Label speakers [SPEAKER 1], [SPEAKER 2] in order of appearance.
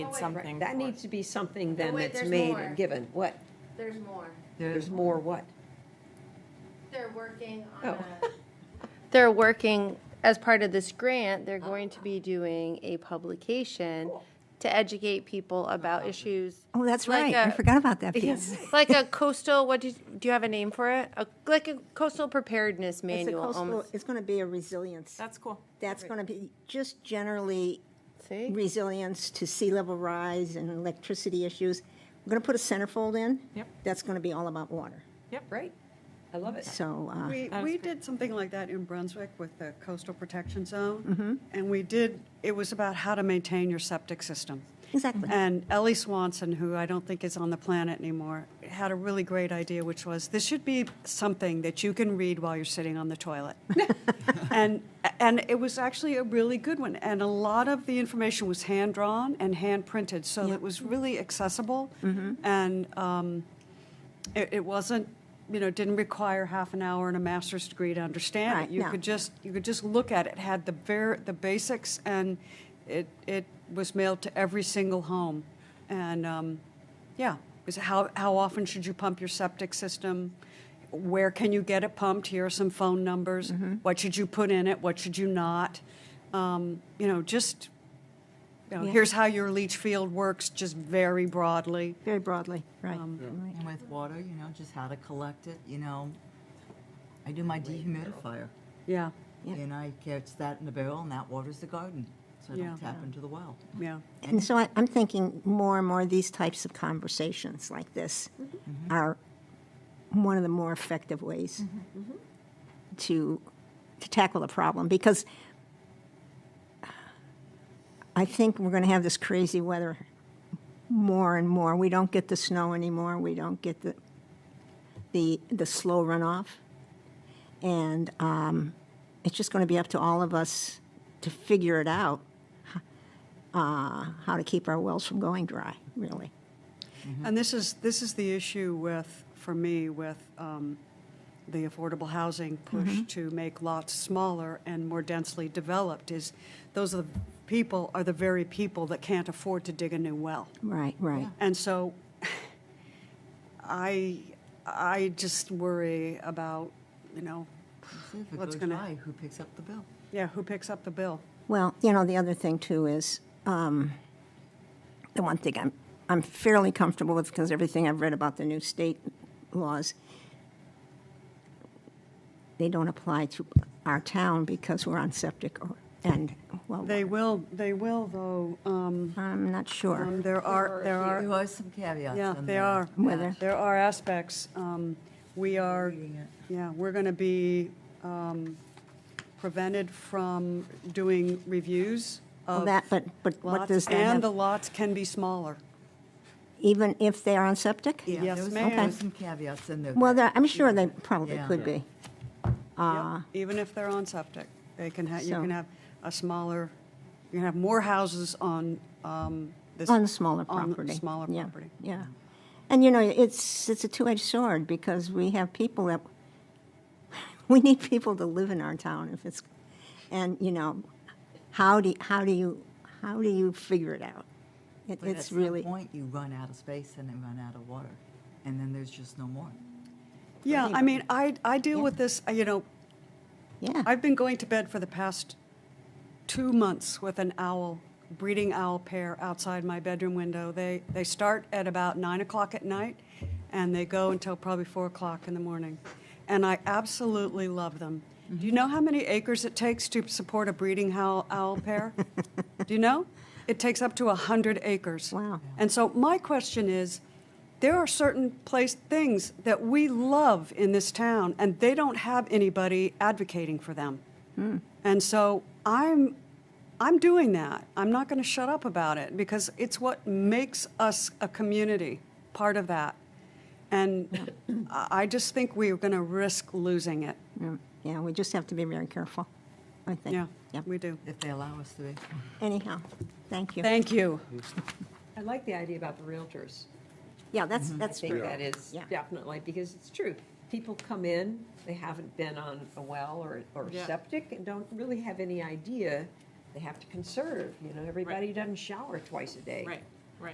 [SPEAKER 1] need
[SPEAKER 2] wait.
[SPEAKER 1] something.
[SPEAKER 3] That
[SPEAKER 1] for-
[SPEAKER 3] needs to be something then
[SPEAKER 2] wait,
[SPEAKER 3] that's
[SPEAKER 2] there's
[SPEAKER 3] made
[SPEAKER 2] more.
[SPEAKER 3] and given. What?
[SPEAKER 2] There's more.
[SPEAKER 3] There's more what?
[SPEAKER 2] They're working on
[SPEAKER 3] Oh.
[SPEAKER 2] a,
[SPEAKER 4] They're working, as part of this grant, they're going to
[SPEAKER 2] Uh-huh.
[SPEAKER 4] be doing a publication to educate people
[SPEAKER 2] Uh-huh.
[SPEAKER 4] about issues.
[SPEAKER 5] Oh, that's
[SPEAKER 4] like
[SPEAKER 5] right. I
[SPEAKER 4] a-
[SPEAKER 5] forgot about that piece.
[SPEAKER 4] Like a coastal, what do you, do you have a name for it? A- Like a coastal preparedness
[SPEAKER 6] It's a
[SPEAKER 4] manual
[SPEAKER 6] coastal,
[SPEAKER 4] almost.
[SPEAKER 6] it's going to be a resilience.
[SPEAKER 1] That's cool.
[SPEAKER 6] That's going to be just generally
[SPEAKER 4] See?
[SPEAKER 6] resilience to sea level rise and electricity issues. We're going to put a centerfold in.
[SPEAKER 1] Yep.
[SPEAKER 6] That's going to be all about water.
[SPEAKER 3] Great. I love it.
[SPEAKER 6] So, uh,
[SPEAKER 7] We,
[SPEAKER 1] That was
[SPEAKER 7] we
[SPEAKER 1] great.
[SPEAKER 7] did something like that in Brunswick with the coastal protection zone. And we did, it was about how to maintain your septic system.
[SPEAKER 6] Exactly.
[SPEAKER 1] Mm-hmm.
[SPEAKER 7] And Ellie Swanson, who I don't think is on the planet anymore, had a really great idea, which was this should be something that you can read while you're sitting on the toilet. and and it was actually a really good one. And a lot of the information was hand drawn and hand printed, so it was really accessible. And um, it, it wasn't, you know, didn't require half an hour and a master's degree to understand
[SPEAKER 6] Right,
[SPEAKER 7] it. You
[SPEAKER 6] no.
[SPEAKER 7] could just you could just look at it. Had the ver- the basics, and it it was mailed to every single home, and um, yeah, is how how often should you pump your septic system? Where can you get it pumped? Here are some phone numbers.
[SPEAKER 6] Mm-hmm.
[SPEAKER 7] What should you put in it? What should you not? Um, you know, just you know, here's how your leach field works, just very broadly.
[SPEAKER 6] very broadly, right.
[SPEAKER 4] Um,
[SPEAKER 8] And with water, you know, just how to collect it, you know. I do my dehumidifier,
[SPEAKER 7] Yeah,
[SPEAKER 8] and I catch that in the barrel, and that waters the garden, so I
[SPEAKER 7] Yeah.
[SPEAKER 8] don't tap into the well.
[SPEAKER 7] yeah.
[SPEAKER 6] And so I, I'm thinking more and more these types of conversations like this are one of the more effective ways to to tackle the problem because I think we're going to have this crazy weather more and more. We don't get the snow anymore. We don't get the the the slow runoff, and um, it's just going to be up to all of us to figure it out uh, how to keep our wells from going dry, really.
[SPEAKER 7] And this is, this is the issue with, for me, with um, the affordable housing push to make lots smaller and more densely developed, is those are the people, are the very people that can't afford to dig a new well.
[SPEAKER 6] Right, right.
[SPEAKER 7] And so I, I just worry about, you know,
[SPEAKER 8] See if it
[SPEAKER 7] What's
[SPEAKER 8] goes
[SPEAKER 7] gonna-
[SPEAKER 8] dry, who picks up the bill?
[SPEAKER 7] yeah, who picks up the bill?
[SPEAKER 6] Well, you know, the other thing too is um, the one thing I'm I'm fairly comfortable with because everything I've read about the new state laws, they don't apply to our town because we're on septic or and well,
[SPEAKER 7] They will, they will, though, um,
[SPEAKER 6] I'm not sure.
[SPEAKER 7] um, there are, there are.
[SPEAKER 8] There are some caveats
[SPEAKER 7] Yeah,
[SPEAKER 8] on
[SPEAKER 7] there
[SPEAKER 8] there.
[SPEAKER 7] are.
[SPEAKER 6] Whether-
[SPEAKER 7] There are aspects. Um, We are, yeah, we're going to be um, prevented from doing reviews
[SPEAKER 6] Well,
[SPEAKER 7] of
[SPEAKER 6] that, but but what
[SPEAKER 7] lots,
[SPEAKER 6] does that
[SPEAKER 7] and the
[SPEAKER 6] have-
[SPEAKER 7] lots can be smaller.
[SPEAKER 6] even if they are on septic?
[SPEAKER 8] Yeah,
[SPEAKER 7] Yes,
[SPEAKER 8] there was-
[SPEAKER 7] ma'am.
[SPEAKER 8] There were some caveats in there.
[SPEAKER 6] Well, there- I'm sure they probably
[SPEAKER 8] Yeah.
[SPEAKER 6] could be.
[SPEAKER 7] Yep, Even if they're on septic, they can have,
[SPEAKER 6] Ah.
[SPEAKER 7] you
[SPEAKER 6] So-
[SPEAKER 7] can have a smaller, you can have more houses on um, this.
[SPEAKER 6] On the smaller
[SPEAKER 7] on the
[SPEAKER 6] property.
[SPEAKER 7] smaller
[SPEAKER 6] Yeah,
[SPEAKER 7] property.
[SPEAKER 6] Yeah. And, you know, it's, it's a two-edged sword because we have people that, we need people to live in our town if it's, and, you know, how do, how do you, how do you figure it out? It-
[SPEAKER 8] But at
[SPEAKER 6] It's
[SPEAKER 8] some
[SPEAKER 6] really,
[SPEAKER 8] point, you run out of space and then run out of water, and then there's just no more.
[SPEAKER 7] Yeah, I mean, I, I deal with this, uh, you know,
[SPEAKER 6] yeah,
[SPEAKER 7] I've been going to bed for the past two months with an owl, breeding owl pair outside my bedroom window. They, they start at about nine o'clock at night and they go until probably four o'clock in the morning. And I absolutely love them.
[SPEAKER 6] Mm-hmm.
[SPEAKER 7] Do you know how many acres it takes to support a breeding owl, owl pair? Do you know? It takes up to 100 acres.
[SPEAKER 6] Wow.
[SPEAKER 7] And so my question is, there are certain place things that we love in this town, and they don't have anybody advocating for them.
[SPEAKER 6] Hmm.
[SPEAKER 7] And so I'm, I'm doing that. I'm not going to shut up about it because it's what makes us a community, part of that. And I I just think we're going to risk losing it.
[SPEAKER 6] Mm, yeah, we just have to be very careful, I think.
[SPEAKER 7] Yeah,
[SPEAKER 6] Yep.
[SPEAKER 7] we do.
[SPEAKER 8] If they allow us to be.
[SPEAKER 6] Anyhow, thank you.
[SPEAKER 7] Thank you.
[SPEAKER 3] I like the idea about the realtors.
[SPEAKER 6] Yeah, that's,
[SPEAKER 3] I
[SPEAKER 7] Mhm.
[SPEAKER 6] that's
[SPEAKER 3] think
[SPEAKER 6] true.
[SPEAKER 3] that is
[SPEAKER 6] Yeah.
[SPEAKER 3] definitely, because it's true. People come in, they haven't been on a well or, or septic and don't really have any idea. They have to conserve, you know, everybody doesn't shower twice a day.
[SPEAKER 1] Right.